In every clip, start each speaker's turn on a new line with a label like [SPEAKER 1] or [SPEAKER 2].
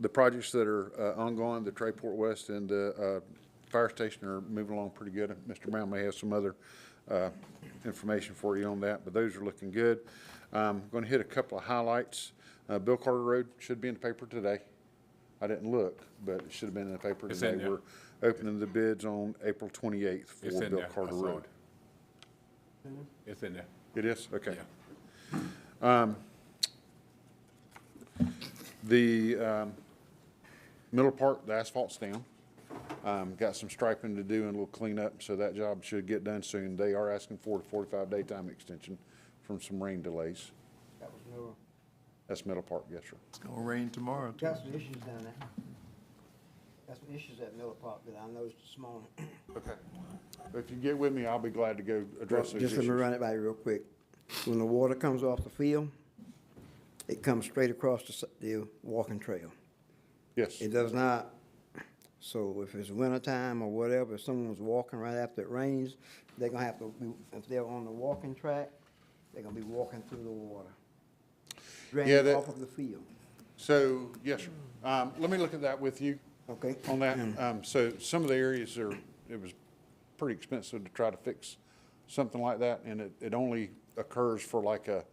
[SPEAKER 1] The projects that are uh, ongoing, the Trayport West and the uh, fire station are moving along pretty good. Mr. Brown may have some other uh, information for you on that, but those are looking good. I'm going to hit a couple of highlights. Uh, Bill Carter Road should be in the paper today. I didn't look, but it should have been in the paper
[SPEAKER 2] It's
[SPEAKER 1] today.
[SPEAKER 2] in there.
[SPEAKER 1] We're opening the bids on April 28th
[SPEAKER 2] It's
[SPEAKER 1] for
[SPEAKER 2] in
[SPEAKER 1] Bill
[SPEAKER 2] there. I
[SPEAKER 1] Carter
[SPEAKER 2] saw
[SPEAKER 1] Road.
[SPEAKER 2] it. It's in there.
[SPEAKER 1] It is? Okay. Um,
[SPEAKER 2] Yeah.
[SPEAKER 1] The um, middle part, the asphalt's down. Um, Got some striping to do and a little cleanup, so that job should get done soon. They are asking for a 45-day time extension from some rain delays.
[SPEAKER 3] That was no,
[SPEAKER 1] That's middle part, yes, sir.
[SPEAKER 4] It's gonna rain tomorrow, too.
[SPEAKER 3] got some issues down there. Got some issues at Miller Park that I noticed this morning.
[SPEAKER 1] If you get with me, I'll be glad to go address those
[SPEAKER 3] Just let me
[SPEAKER 1] issues.
[SPEAKER 3] run it by you real quick. When the water comes off the field, it comes straight across the, s- the walking trail.
[SPEAKER 1] Yes,
[SPEAKER 3] It does not, so if it's wintertime or whatever, if someone's walking right after it rains, they're gonna have to, be- if they're on the walking track, they're gonna be walking through the water.
[SPEAKER 1] that-
[SPEAKER 3] Draining off of the field,
[SPEAKER 1] so, yes, sir. Um, Let me look at that with you.
[SPEAKER 3] okay?
[SPEAKER 1] on that. Um, so some of the areas are, it was pretty expensive to try to fix something like that, and it, it only occurs for like a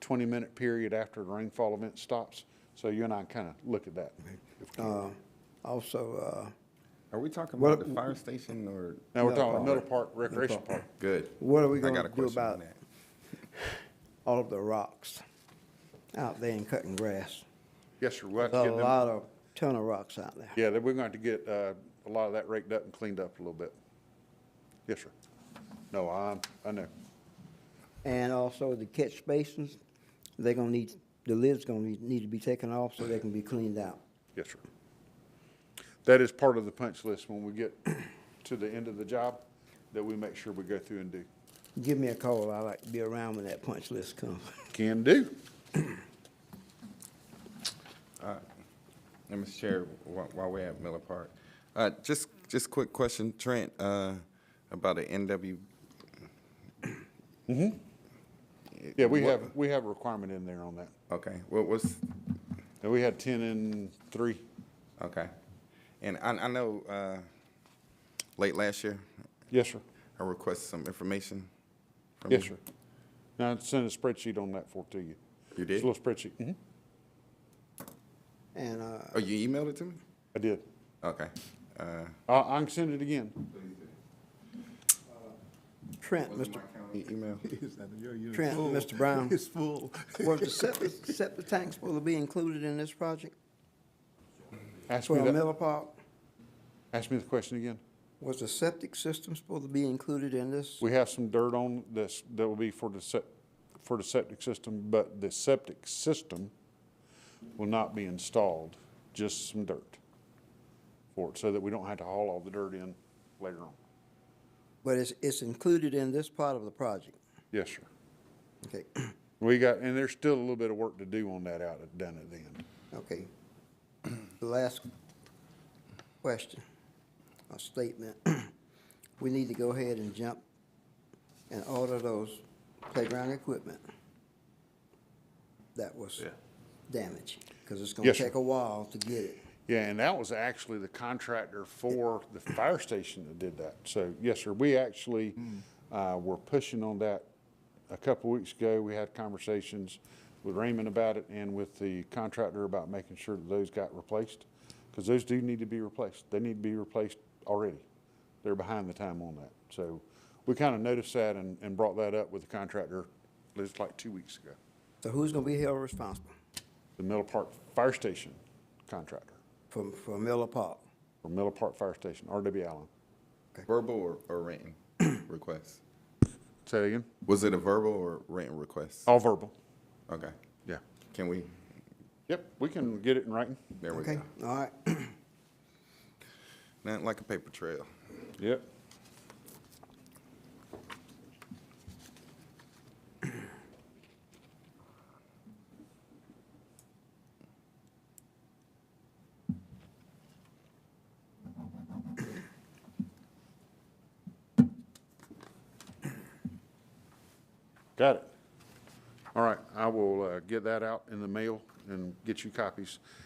[SPEAKER 1] twenty-minute period after the rainfall event stops. So you and I kind of look at that. if we can.
[SPEAKER 3] Uh, also, uh,
[SPEAKER 5] Are we talking
[SPEAKER 3] What-
[SPEAKER 5] about the fire station or?
[SPEAKER 1] Now, we're
[SPEAKER 3] Middle
[SPEAKER 1] talking
[SPEAKER 3] Park.
[SPEAKER 1] Middle Park Recreation
[SPEAKER 3] Park.
[SPEAKER 1] Park.
[SPEAKER 5] Good.
[SPEAKER 3] What are we
[SPEAKER 5] I
[SPEAKER 3] gonna
[SPEAKER 5] got a
[SPEAKER 3] do
[SPEAKER 5] question on
[SPEAKER 3] about
[SPEAKER 5] that.
[SPEAKER 3] all of the rocks out there and cutting grass.
[SPEAKER 1] Yes, sir. We'll have to
[SPEAKER 3] There's a
[SPEAKER 1] get them-
[SPEAKER 3] lot of, ton of rocks out there.
[SPEAKER 1] Yeah, then we're going to get, uh, a lot of that raked up and cleaned up a little bit. Yes, sir. No, I, I know.
[SPEAKER 3] And also the catch basins, they're gonna need, the lid's gonna need, need to be taken off so they can be cleaned out.
[SPEAKER 1] Yes, sir. That is part of the punch list when we get to the end of the job, that we make sure we go through and do.
[SPEAKER 3] Give me a call, I like to be around when that punch list comes.
[SPEAKER 1] Can do.
[SPEAKER 5] And Mr. Chair, while, while we're at Miller Park, uh, just, just quick question, Trent, uh, about the NW.
[SPEAKER 1] Yeah, we
[SPEAKER 5] What-
[SPEAKER 1] have, we have a requirement in there on that.
[SPEAKER 5] Okay, what was,
[SPEAKER 1] And we had ten and three.
[SPEAKER 5] okay. And I, I know, uh, late last year,
[SPEAKER 1] Yes, sir.
[SPEAKER 5] I requested some information. from
[SPEAKER 1] Yes, sir.
[SPEAKER 5] you.
[SPEAKER 1] Now, I sent a spreadsheet on that for to you.
[SPEAKER 5] You
[SPEAKER 1] It's
[SPEAKER 5] did?
[SPEAKER 1] a little spreadsheet. Mhm.
[SPEAKER 3] And, uh,
[SPEAKER 5] Oh, you emailed it to me?
[SPEAKER 1] I did.
[SPEAKER 5] Okay, uh.
[SPEAKER 1] I, I can send it again.
[SPEAKER 3] Trent, Mr.
[SPEAKER 5] e- Email.
[SPEAKER 3] Trent, Mr. Brown.
[SPEAKER 4] It's full.
[SPEAKER 3] Was the septic, septic tank supposed to be included in this project?
[SPEAKER 1] Ask me
[SPEAKER 3] For
[SPEAKER 1] that,
[SPEAKER 3] Miller Park,
[SPEAKER 1] ask me the question again.
[SPEAKER 3] was the septic system supposed to be included in this?
[SPEAKER 1] We have some dirt on this, that will be for the sep, for the septic system, but the septic system will not be installed, just some dirt for it, so that we don't have to haul all the dirt in later on.
[SPEAKER 3] But it's, it's included in this part of the project.
[SPEAKER 1] Yes, sir.
[SPEAKER 3] Okay,
[SPEAKER 1] We got, and there's still a little bit of work to do on that out, at- done at the end.
[SPEAKER 3] okay. The last question, a statement. We need to go ahead and jump and order those playground equipment that was damaged, because it's gonna
[SPEAKER 1] Yes, sir.
[SPEAKER 3] take a while to get it.
[SPEAKER 1] Yeah, and that was actually the contractor for the fire station that did that. So, yes, sir, we actually uh, were pushing on that a couple weeks ago. We had conversations with Raymond about it and with the contractor about making sure that those got replaced, because those do need to be replaced. They need to be replaced already. They're behind the time on that. So we kind of noticed that and, and brought that up with the contractor just like two weeks ago.
[SPEAKER 3] So who's gonna be held responsible
[SPEAKER 1] The Miller Park Fire Station contractor,
[SPEAKER 3] for, for Miller Park?
[SPEAKER 1] or Miller Park Fire Station, R.W. Allen.
[SPEAKER 5] Verbal or, or written request?
[SPEAKER 1] Say it again?
[SPEAKER 5] Was it a verbal or written request?
[SPEAKER 1] All verbal.
[SPEAKER 5] Okay,
[SPEAKER 1] Yeah.
[SPEAKER 5] can we,
[SPEAKER 1] Yep, we can get it in writing.
[SPEAKER 5] there we
[SPEAKER 3] Okay,
[SPEAKER 5] go.
[SPEAKER 3] all right.
[SPEAKER 5] Nothing like a paper trail.
[SPEAKER 1] Yep. Got it. All right, I will uh, get that out in the mail and get you copies.